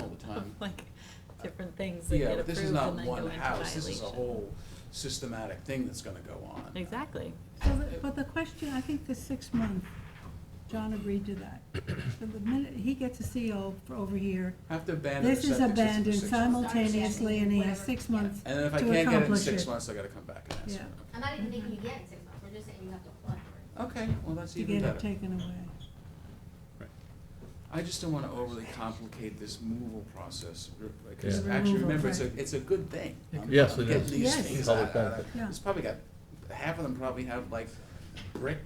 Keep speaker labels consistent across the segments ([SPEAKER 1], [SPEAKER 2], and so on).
[SPEAKER 1] all the time.
[SPEAKER 2] Like, different things that
[SPEAKER 1] Yeah,
[SPEAKER 2] get
[SPEAKER 1] but this
[SPEAKER 2] approved
[SPEAKER 1] is
[SPEAKER 2] and
[SPEAKER 1] not
[SPEAKER 2] then go
[SPEAKER 1] one
[SPEAKER 2] into
[SPEAKER 1] house, this is a
[SPEAKER 2] violation.
[SPEAKER 1] whole systematic thing that's gonna go on.
[SPEAKER 2] Exactly.
[SPEAKER 3] So, the- but the question, I think the six month, John agreed to that. So the minute he gets a CO for over here,
[SPEAKER 1] Have to abandon the
[SPEAKER 3] this is
[SPEAKER 1] septic system for
[SPEAKER 3] abandoned
[SPEAKER 1] six months.
[SPEAKER 3] simultaneously and he has six months to
[SPEAKER 1] And then if I
[SPEAKER 3] accomplish it.
[SPEAKER 1] can't get it in six months, I gotta come back and ask.
[SPEAKER 3] Yeah.
[SPEAKER 1] for
[SPEAKER 4] I'm not even thinking you get in six months, we're just saying you have to apply for
[SPEAKER 1] it. Okay, well, that's
[SPEAKER 3] To
[SPEAKER 1] even
[SPEAKER 3] get it
[SPEAKER 1] better.
[SPEAKER 3] taken away.
[SPEAKER 1] I just don't wanna overly complicate this removal process, re- because
[SPEAKER 3] Yeah.
[SPEAKER 1] actually,
[SPEAKER 3] Removal,
[SPEAKER 1] remember, it's a,
[SPEAKER 3] right.
[SPEAKER 1] it's a good thing. I'm-
[SPEAKER 5] Yes,
[SPEAKER 1] I'm
[SPEAKER 5] it
[SPEAKER 1] getting
[SPEAKER 5] is.
[SPEAKER 1] these
[SPEAKER 3] Yes.
[SPEAKER 1] things
[SPEAKER 5] Public
[SPEAKER 1] out- out of-
[SPEAKER 3] benefit.
[SPEAKER 1] It's probably got, half of them probably have like brick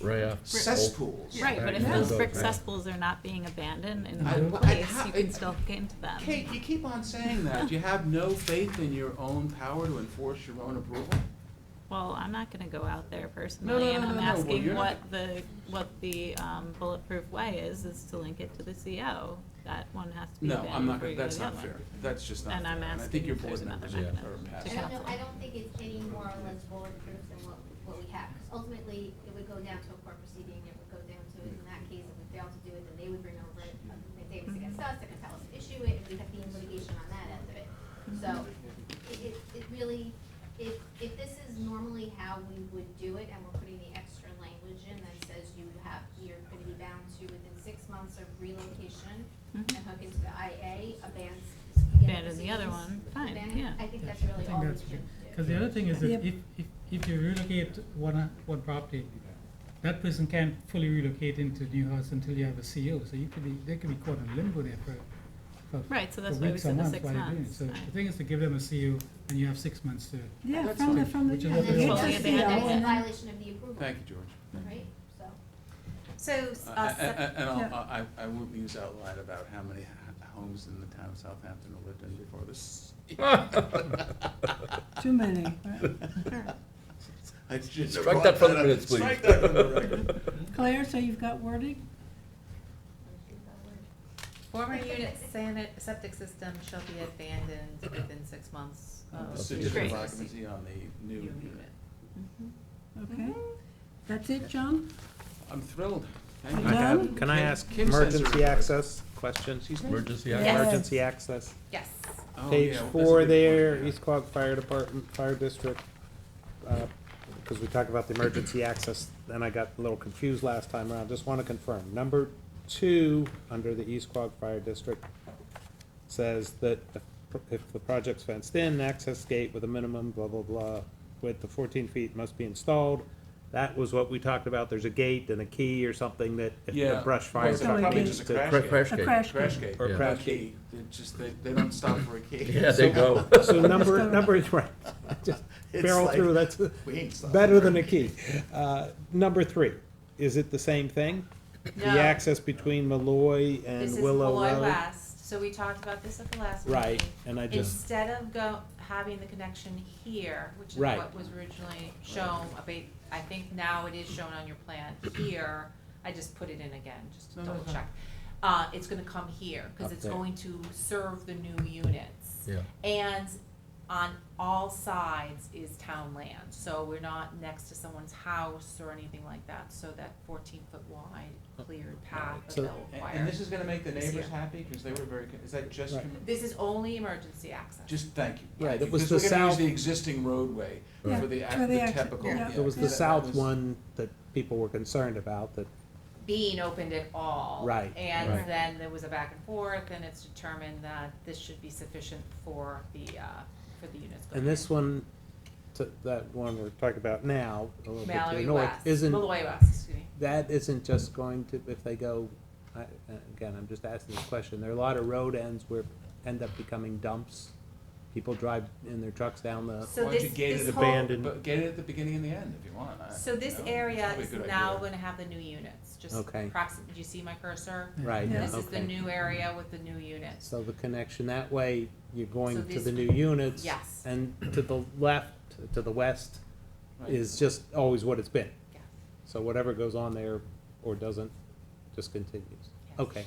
[SPEAKER 5] Right after.
[SPEAKER 1] cesspools.
[SPEAKER 2] Right, but if
[SPEAKER 5] Yeah.
[SPEAKER 2] those
[SPEAKER 5] Yeah.
[SPEAKER 2] brick
[SPEAKER 5] Yeah.
[SPEAKER 2] cesspools are not being abandoned in
[SPEAKER 1] I-
[SPEAKER 2] one
[SPEAKER 1] well, I-
[SPEAKER 2] place,
[SPEAKER 1] how-
[SPEAKER 2] you can
[SPEAKER 1] it-
[SPEAKER 2] still get into them.
[SPEAKER 1] Kate, you keep on saying that. You have no faith in your own power to enforce your own approval?
[SPEAKER 2] Well, I'm not gonna go out
[SPEAKER 1] No,
[SPEAKER 2] there
[SPEAKER 1] no,
[SPEAKER 2] personally, and
[SPEAKER 1] no,
[SPEAKER 2] I'm
[SPEAKER 1] no, no, well, you're
[SPEAKER 2] asking
[SPEAKER 1] not-
[SPEAKER 2] what the, what the um, bulletproof way is, is to link it to the CO. That one has to be
[SPEAKER 1] No, I'm
[SPEAKER 2] abandoned
[SPEAKER 1] not,
[SPEAKER 2] before
[SPEAKER 1] gonna
[SPEAKER 2] you go to
[SPEAKER 1] that's
[SPEAKER 2] the
[SPEAKER 1] not
[SPEAKER 2] other
[SPEAKER 1] fair.
[SPEAKER 2] one.
[SPEAKER 1] That's just not fair.
[SPEAKER 2] And I'm
[SPEAKER 1] I think
[SPEAKER 2] asking
[SPEAKER 1] your
[SPEAKER 2] if
[SPEAKER 1] board
[SPEAKER 2] there's another
[SPEAKER 1] members
[SPEAKER 5] mechanism
[SPEAKER 1] are past that.
[SPEAKER 2] to
[SPEAKER 4] it. I don't know,
[SPEAKER 2] Counsel.
[SPEAKER 4] I don't think it's any more or less bulletproof than what, what we have, 'cause ultimately, it would go down to a court proceeding, it would go down to, in that case, if we fail to do it, then they would bring over it, uh, if they was against us, they're gonna tell us to issue it, and we'd have to be in litigation on that end of it. So, it, it, it really, if, if this is normally how we would do it, and we're putting the extra language in that says you have, you're gonna be bound to within six months of relocation, and
[SPEAKER 2] Mhm.
[SPEAKER 4] hook into the IA, abandon.
[SPEAKER 2] Abandon the other one, fine,
[SPEAKER 4] Abandon-
[SPEAKER 2] yeah.
[SPEAKER 4] I think that's
[SPEAKER 6] I
[SPEAKER 4] really
[SPEAKER 6] think
[SPEAKER 4] all we
[SPEAKER 6] that's
[SPEAKER 4] should
[SPEAKER 6] good.
[SPEAKER 4] do.
[SPEAKER 6] Because the other thing is that
[SPEAKER 3] Yep.
[SPEAKER 6] if, if, if you relocate one, uh, one property, that person can't fully relocate into new house until you have a CO, so you could be, they could be caught in limbo there for, for.
[SPEAKER 2] Right, so
[SPEAKER 6] for
[SPEAKER 2] that's why we
[SPEAKER 6] weeks or
[SPEAKER 2] said the
[SPEAKER 6] months
[SPEAKER 2] six
[SPEAKER 6] while you're doing it.
[SPEAKER 2] months,
[SPEAKER 6] So
[SPEAKER 2] right.
[SPEAKER 6] the thing is to give them a CO and you have six months to,
[SPEAKER 3] Yeah,
[SPEAKER 1] That's
[SPEAKER 3] from the,
[SPEAKER 1] fine.
[SPEAKER 3] from the,
[SPEAKER 6] Which is
[SPEAKER 3] yeah,
[SPEAKER 6] what
[SPEAKER 3] they
[SPEAKER 6] we
[SPEAKER 3] get
[SPEAKER 6] want.
[SPEAKER 3] the
[SPEAKER 4] And then
[SPEAKER 3] CO
[SPEAKER 4] that's a
[SPEAKER 3] and then,
[SPEAKER 4] violation of the approval,
[SPEAKER 1] Thank you, George.
[SPEAKER 4] right? So,
[SPEAKER 7] So,
[SPEAKER 1] Uh,
[SPEAKER 7] uh,
[SPEAKER 1] a- a- And I'll- I,
[SPEAKER 3] Yeah.
[SPEAKER 1] I will muse out loud about how many h- homes in the town of Southampton I lived in before this.
[SPEAKER 3] too many, right?
[SPEAKER 1] I shouldn't have
[SPEAKER 5] Strike
[SPEAKER 1] brought
[SPEAKER 5] that from the
[SPEAKER 1] up.
[SPEAKER 5] minutes, please.
[SPEAKER 1] Strike that from the record.
[SPEAKER 2] Oh,
[SPEAKER 3] Claire, so you've got wording?
[SPEAKER 7] former unit sanit, septic system shall be abandoned within six months of.
[SPEAKER 1] The certificate
[SPEAKER 2] Great.
[SPEAKER 1] of occupancy on the new
[SPEAKER 7] New
[SPEAKER 1] unit.
[SPEAKER 7] unit.
[SPEAKER 2] Mhm.
[SPEAKER 3] Okay. That's it, John?
[SPEAKER 1] I'm thrilled. Thank
[SPEAKER 3] You
[SPEAKER 1] you.
[SPEAKER 8] I
[SPEAKER 3] Done?
[SPEAKER 8] have, can I
[SPEAKER 1] Kim-
[SPEAKER 8] ask
[SPEAKER 1] Kim says
[SPEAKER 8] emergency
[SPEAKER 1] her-
[SPEAKER 8] access question?
[SPEAKER 5] Emergency
[SPEAKER 3] Yes.
[SPEAKER 5] access.
[SPEAKER 8] Emergency access,
[SPEAKER 7] Yes.
[SPEAKER 1] Oh,
[SPEAKER 8] page
[SPEAKER 1] yeah, well, that's a
[SPEAKER 8] four
[SPEAKER 1] good point,
[SPEAKER 8] there,
[SPEAKER 1] yeah.
[SPEAKER 8] East Quogue Fire Department, Fire District. Because we talked about the emergency access, and I got a little confused last time around, just want to confirm. Number two, under the East Quogue Fire District, says that the pro- if the project's fenced in, access gate with a minimum blah, blah, blah, width of fourteen feet must be installed. That was what we talked about, there's a gate and a key or something that if
[SPEAKER 1] Yeah.
[SPEAKER 8] the brush fire
[SPEAKER 1] Well, it's probably
[SPEAKER 8] company
[SPEAKER 1] just a
[SPEAKER 8] needs to-
[SPEAKER 1] crash
[SPEAKER 5] Cra-
[SPEAKER 1] gate.
[SPEAKER 5] Crash
[SPEAKER 3] A
[SPEAKER 5] gate.
[SPEAKER 3] crash
[SPEAKER 1] Crash
[SPEAKER 3] gate.
[SPEAKER 1] gate.
[SPEAKER 8] Or
[SPEAKER 1] A
[SPEAKER 8] crash
[SPEAKER 1] key. They just, they, they don't stop for a key.
[SPEAKER 5] Yeah, they go.
[SPEAKER 8] So number,
[SPEAKER 3] Discover.
[SPEAKER 8] number, right, just
[SPEAKER 1] It's
[SPEAKER 8] barrel
[SPEAKER 1] like-
[SPEAKER 8] through, that's
[SPEAKER 1] We ain't stopping
[SPEAKER 8] better
[SPEAKER 1] for
[SPEAKER 8] than a key. Uh, Number three, is it the same thing? The
[SPEAKER 7] No.
[SPEAKER 8] access between Malloy and
[SPEAKER 7] This is
[SPEAKER 8] Willow
[SPEAKER 7] Malloy
[SPEAKER 8] Road?
[SPEAKER 7] West, so we talked about this at the last meeting.
[SPEAKER 8] Right, and I just,
[SPEAKER 7] Instead of go, having the connection here, which is
[SPEAKER 8] Right.
[SPEAKER 7] what was originally shown, a ba- I think now it is shown on your plan here, I just put it in again, just to
[SPEAKER 1] No, no,
[SPEAKER 7] double
[SPEAKER 1] no.
[SPEAKER 7] check. Uh, it's gonna come here, cause
[SPEAKER 8] Up
[SPEAKER 7] it's
[SPEAKER 8] there.
[SPEAKER 7] going to serve the new units.
[SPEAKER 5] Yeah.
[SPEAKER 7] And on all sides is town land, so we're not next to someone's house or anything like that, so that fourteen foot wide cleared path that
[SPEAKER 8] So-
[SPEAKER 7] they'll
[SPEAKER 1] And,
[SPEAKER 7] require.
[SPEAKER 1] and this is gonna make the
[SPEAKER 7] This
[SPEAKER 1] neighbors
[SPEAKER 7] year.
[SPEAKER 1] happy, cause they were very, con- is that just,
[SPEAKER 8] Right.
[SPEAKER 1] com-
[SPEAKER 7] This is only emergency access.
[SPEAKER 1] just, thank you.
[SPEAKER 8] Right, it was
[SPEAKER 1] Because
[SPEAKER 8] the
[SPEAKER 1] we're gonna use
[SPEAKER 8] south-
[SPEAKER 1] the existing roadway
[SPEAKER 3] Yeah,
[SPEAKER 1] for the, ac-
[SPEAKER 3] for the
[SPEAKER 1] the
[SPEAKER 3] exit,
[SPEAKER 1] typical.
[SPEAKER 3] yeah.
[SPEAKER 8] it was
[SPEAKER 1] that-
[SPEAKER 8] the
[SPEAKER 1] that
[SPEAKER 8] south
[SPEAKER 1] was-
[SPEAKER 8] one that people were concerned about, that,
[SPEAKER 7] being opened at all.
[SPEAKER 8] Right,
[SPEAKER 7] And
[SPEAKER 8] right.
[SPEAKER 7] then there was a back and forth, and it's determined that this should be sufficient for the, uh, for the units. going
[SPEAKER 8] and this
[SPEAKER 7] in.
[SPEAKER 8] one, to- that one we're talking about now, a little bit to the
[SPEAKER 7] Mallory
[SPEAKER 8] north,
[SPEAKER 7] West,
[SPEAKER 8] isn't,
[SPEAKER 7] Malloy West, excuse me.
[SPEAKER 8] that isn't just going to, if they go, I- again, I'm just asking this question, there are a lot of road ends where end up becoming dumps. People drive in their trucks down the
[SPEAKER 7] So
[SPEAKER 1] Why don't
[SPEAKER 7] this,
[SPEAKER 1] you gate
[SPEAKER 7] this
[SPEAKER 1] it
[SPEAKER 7] whole,
[SPEAKER 8] abandoned?
[SPEAKER 1] But get it at the beginning and the end if you want. I-
[SPEAKER 7] so
[SPEAKER 1] you
[SPEAKER 7] this
[SPEAKER 1] know,
[SPEAKER 7] area
[SPEAKER 1] probably a
[SPEAKER 7] is
[SPEAKER 1] good
[SPEAKER 7] now
[SPEAKER 1] idea.
[SPEAKER 7] gonna have the new units, just
[SPEAKER 8] Okay.
[SPEAKER 7] approximately, do you see my cursor?
[SPEAKER 8] Right,
[SPEAKER 3] Yeah.
[SPEAKER 8] okay.
[SPEAKER 7] This is the new area with the new units.
[SPEAKER 8] So the connection that way, you're
[SPEAKER 7] So
[SPEAKER 8] going to
[SPEAKER 7] this-
[SPEAKER 8] the new units.
[SPEAKER 7] Yes.
[SPEAKER 8] And to the left, to the west
[SPEAKER 1] Right.
[SPEAKER 8] is just always what it's been.
[SPEAKER 7] Yeah.
[SPEAKER 8] So whatever goes on there or doesn't, just continues.
[SPEAKER 7] Yes.
[SPEAKER 8] Okay.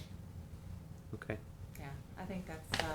[SPEAKER 8] Okay.
[SPEAKER 7] Yeah, I think that's, uh,